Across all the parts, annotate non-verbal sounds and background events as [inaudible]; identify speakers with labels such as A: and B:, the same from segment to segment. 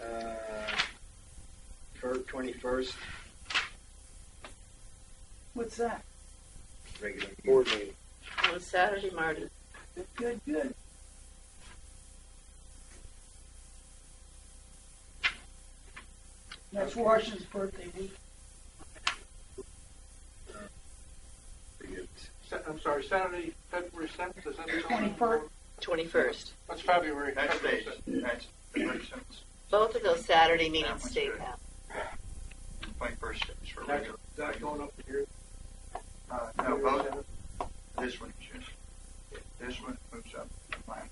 A: Uh, December 21st,
B: What's that?
A: regular meeting.
C: board meeting.
D: On Saturday, Marty.
B: Good, good, good. That's
A: Okay.
B: Washington's birthday week.
A: Pretty good.
E: Sa- I'm sorry, Saturday, February 7th, is that the
B: 21st.
D: 21st.
E: That's February.
F: Next
E: February
F: stage,
E: 7th.
F: next, February seventh,
D: Both of those Saturday
F: Yeah,
D: meetings
F: that's
D: stay
F: good.
D: out.
F: twenty-first is for
E: That's,
F: regular.
E: that's going up to your.
F: Uh, no, both, this one, just, this one moves up, mine,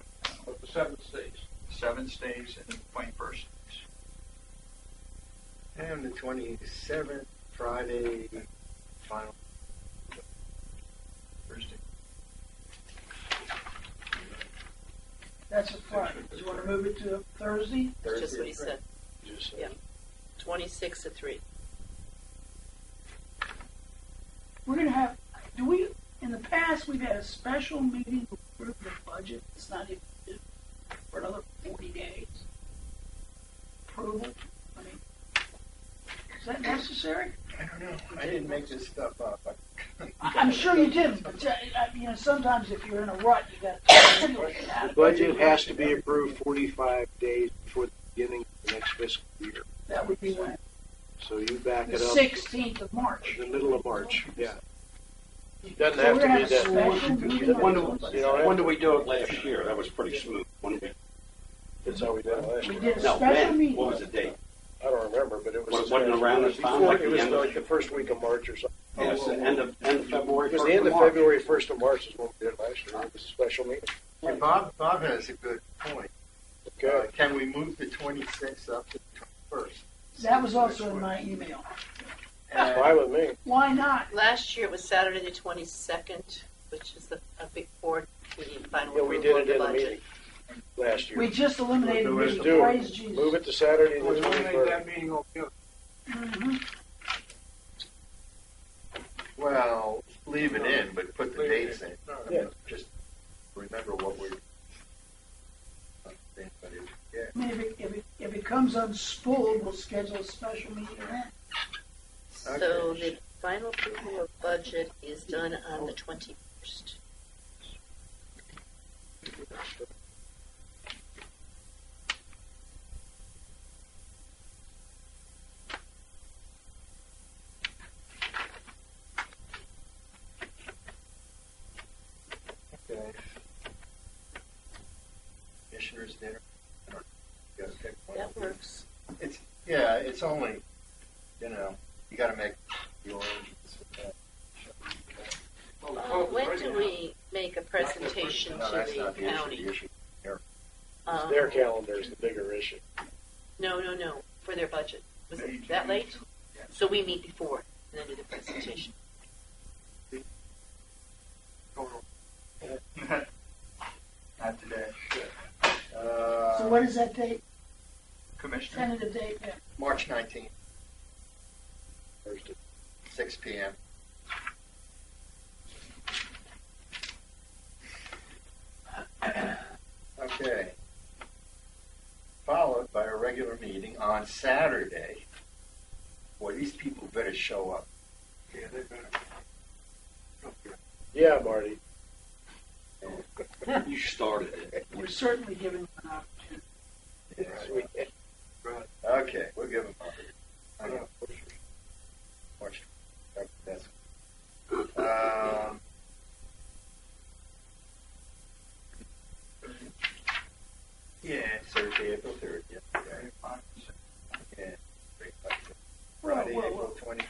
E: But the 7th stays.
F: seven stays and twenty-first stays.
A: And the 27th, Friday, final.
F: Thursday.
B: That's a Friday. Do you want to move it to a Thursday?
D: That's just what he
A: Thursday.
D: said.
F: Just, uh,
D: Yeah. 26 to 3.
B: We're gonna have, do we, in the past, we've had a special meeting to approve the budget. It's not even due for another forty days. Approval, I mean, is that necessary?
A: I don't know. I didn't make this stuff up. I-
B: I- I'm sure you didn't, but uh, I- you know, sometimes if you're in a rut, you got to look at
C: The
B: it.
C: budget has to be approved forty-five days before the beginning of the next fiscal year.
B: That would be when,
C: So you back
B: the
C: it up
B: sixteenth of March.
C: the middle of March, yeah.
G: Doesn't
B: So
G: have
B: we're
G: to
B: gonna
G: be
B: have a
G: that.
B: special meeting.
G: When do,
B: on
G: you know, when do we do it last year? That was pretty smooth. When did
C: That's how we did it last
B: We
C: year.
B: did a
G: No,
B: special
G: when?
B: meeting.
G: What was the date?
C: I don't remember, but it was.
G: Wasn't it around this time,
C: Before-
G: like
C: It
G: the
C: was
G: end of-
C: like the first week of March or something.
G: It was the end of, end of February.
C: It was
G: first
C: the end of
G: March.
C: February, first of March is when we did it last year. It was a special meeting.
A: And Bob, Bob has a good point. Uh,
C: Okay.
A: Can we move the 26th up to the 21st?
B: That was also in my email.
C: That's fine with me.
B: Why not?
D: Last year was Saturday, the 22nd, which is the a big board meeting, final
C: Yeah, we
D: approval of
C: did it
D: the
C: in a
D: budget.
C: meeting last year.
B: We just eliminated
A: What do
C: Let's
B: Mr.
A: we
C: do
B: Praise
C: it.
B: Jesus.
C: Move it to Saturday
E: Well,
C: the
E: you made that
C: twenty-first.
E: meeting altogether.
B: Mhm.
A: Well, leave it in, but put the
E: Leave it
A: dates in.
E: All right.
C: Yeah.
A: Just remember what we're. Yeah.
B: I mean, if it, if it, if it comes unspooled, we'll schedule a special meeting then.
D: So the final approval of budget is done on the 21st.
A: Okay. Commissioners dinner. I don't know. You gotta pick one.
D: That works.
A: It's, yeah, it's only, you know, you gotta make the arrangements with that.
E: Well, the
D: Uh,
E: vote is
D: When
E: ready
D: do
E: Oh, now.
D: we make a presentation
A: No,
D: to
A: that's
D: the
A: not the issue, the
D: county?
A: issue.
D: Um,
C: Their calendar is the bigger issue.
D: No, no, no, for their budget. Was it that late?
F: Yeah.
D: So we meet before and then do the presentation.
F: [laughs] Not today.
B: So
A: Uh,
B: what is that date,
F: Commissioner,
B: tentative date then?
A: March nineteenth,
C: Thursday.
A: six P M. Okay. Followed by a regular meeting on Saturday. Boy, these people better show up.
E: Yeah, they better. Okay.
C: Yeah, Marty.
G: You started it.
B: We're certainly giving uh, them an opportunity.
C: We-
E: Right.
A: Okay, we'll give them. I know. March. That's. Um, yeah, it's Thursday, April third. Yeah. Okay. Yeah. Friday,
B: Whoa, whoa,
A: April
B: whoa.
A: twenty.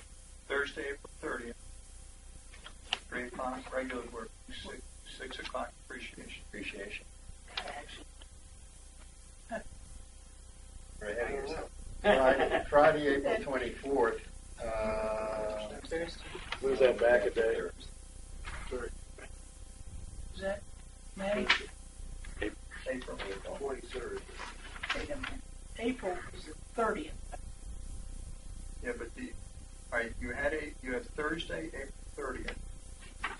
F: Thursday, April thirtieth, three o'clock, regular work, six, six o'clock appreciation.
A: Appreciation.
B: Huh.
A: We're ahead of
B: [laughs]
A: ourselves. Friday, Friday, April twenty fourth. Uh,
D: Thursday.
C: Move that back a day.
B: Is that May?
F: April.
E: Twenty-third.
B: Wait a minute. April is the thirtieth.
F: Yeah, but the, all right, you had a, you have Thursday, April thirtieth,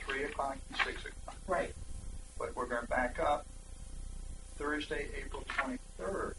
F: three o'clock and six o'clock.
B: Right.
F: But we're gonna back up Thursday, April twenty-third,